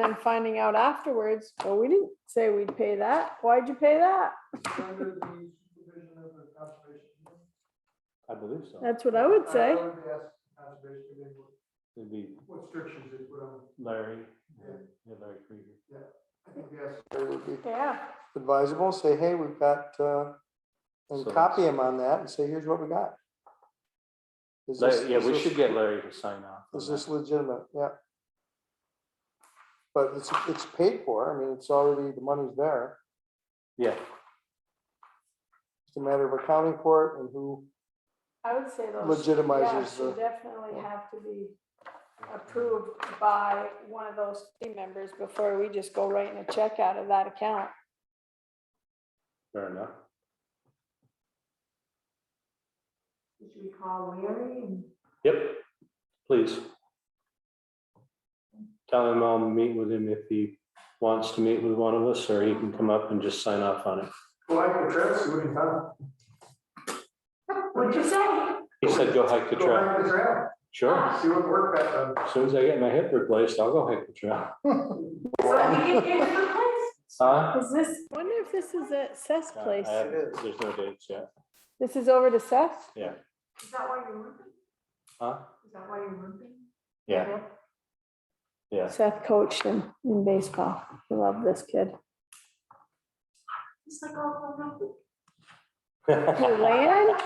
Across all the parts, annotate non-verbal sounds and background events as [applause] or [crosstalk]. then finding out afterwards, well, we didn't say we'd pay that. Why'd you pay that? Under the supervision of the conservation. commission? I believe so. That's what I would say. I would ask the conservation commission what- It'd be what strictures it would, um, Larry, yeah, Larry Krieger. I think yes, it would be Yeah, advisable, say, hey, we've got, uh, and So- copy him on that and say, here's what we got. Is this- Larry- Yeah, is we this- should get Larry to sign off. on Is that. this legitimate? Yeah. But it's, it's paid for. I mean, it's already, the money's there. Yeah, It's a matter of accounting for it and who, I would say those. yeah, Legitimizes should the- Definitely have to be approved by one of those team members before we just go writing a check out of that account. fair enough. Should we call Larry and Yep, please. Tell him I'll meet with him if he wants to meet with one of us, or he can come up and just sign off on it. Well, I can trust you anytime. what'd you say? He said, go hike the Go trail. back to trail, Sure, see what work that done. as soon as I get my hip replaced, I'll go hike the trail. So we can get the place. Huh? Is this, wonder if this is at Seth's I place? have- There's no dates yet. This is over to Seth? Is that why you're limping? Huh? Is that why you're limping? Yeah, [laughs] yeah. Seth coached him in baseball. I love this [laughs] kid. It's like oh, all grown up. Hey, Land,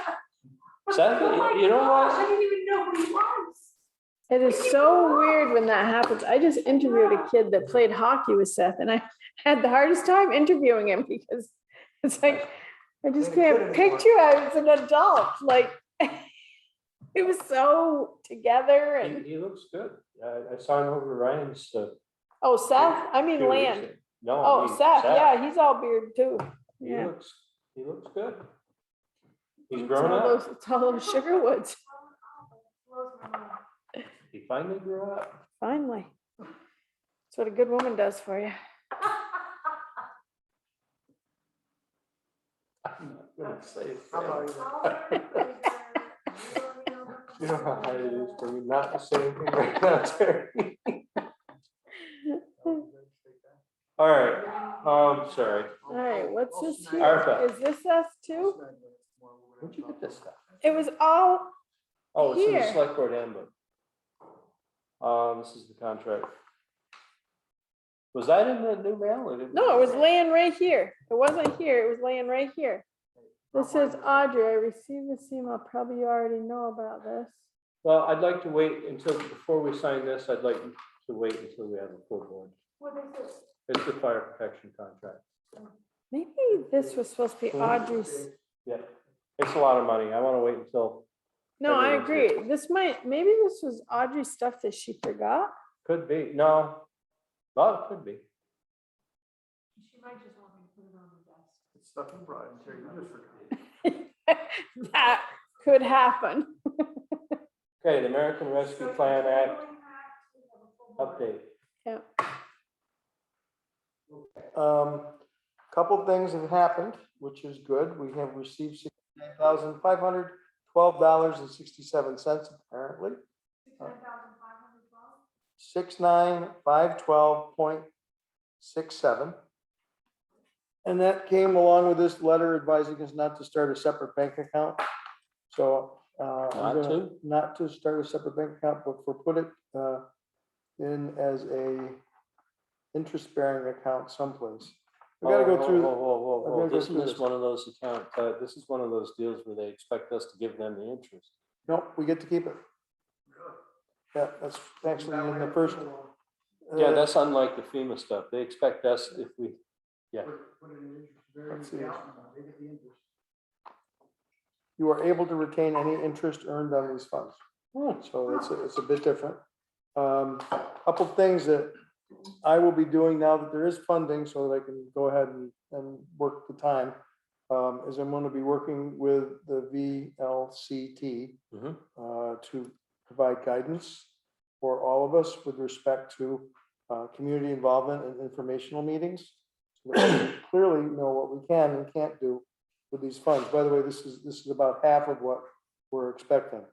Seth, Oh my you know what? gosh, I didn't even know who he was. [laughs] it is so weird when that happens. I just interviewed a kid that played hockey with Seth and I had the hardest time interviewing him because it's like, I just Then it can't could've been. picture I was an adult, like [laughs] it was so together He, and, he looks good. I, I saw him over Ryan's. uh, oh, Seth, I two mean, weeks Land. ago. No. I Oh, mean Seth, yeah, he's all beard too. He Yeah. looks, he looks good. He's It's grown all up. those- It's all those sugar woods, Blows my mind. He finally grew up. finally. That's what a good woman does for you. I'm not gonna say [laughs] it. You You know how hard it is for me not to say anything right now, Terry. [laughs] All right, um, sorry. All right, what's this here? Arpa. Is this us too? Where'd you get this stuff? It was all, Oh, it's in the Here. select board handbook. Um, this is the contract. Was that in the new mail? I didn't- no, it was laying right here. It wasn't here, it was laying right here. This is Audrey, I received this email, probably you already know about this. Well, I'd like to wait until, before we sign this, I'd like to wait until we have a full board. What is it? It's the fire protection contract. Maybe this was supposed to be Audrey's. Yeah, it's a lot of money. I want to wait until, No, I Everyone's here. agree. This might, maybe this was Audrey's stuff that she forgot. could be, no. Well, it could be. She might just want me to put it on the desk. Stuff you brought in, Terry, you just forgot. That could happen. Okay, the American Rescue So Plan you're Act going back to have a full board. update. Um, couple things have happened, which is good. We have received sixty-nine thousand five hundred twelve dollars and sixty-seven cents apparently. $10,512? Six nine five twelve point six seven. And that came along with this letter advising us not to start a separate bank account. So, uh, I'm Not gonna- to? not to start a separate bank account, but for put it, uh, in as a interest-bearing account someplace. We gotta go Whoa, through. Whoa, whoa, whoa, I've whoa, gotta whoa. go Isn't through this this. one of those account, uh, this is one of those deals where they expect us to give them the interest. Nope, we get to keep it. Yeah, that's actually in the first. Yeah, uh, that's unlike the FEMA stuff. They expect us if we, let's see. You are able to retain any interest earned on these funds. So it's, a- it's a bit different. Um, Couple things that I will be doing now that there is funding so that I can go ahead and, and work the time. um, Is I'm going to be working with the VLCT Mhm. uh, to provide guidance for all of us with respect to uh, community involvement and informational meetings. so that we Clearly know what we can and can't do with these funds. By the way, this is, this is about half of what we're expecting.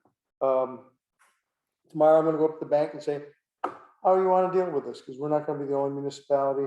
Um, Tomorrow I'm gonna go up to the bank and say, how you want to deal with this, because we're not going to be the only municipality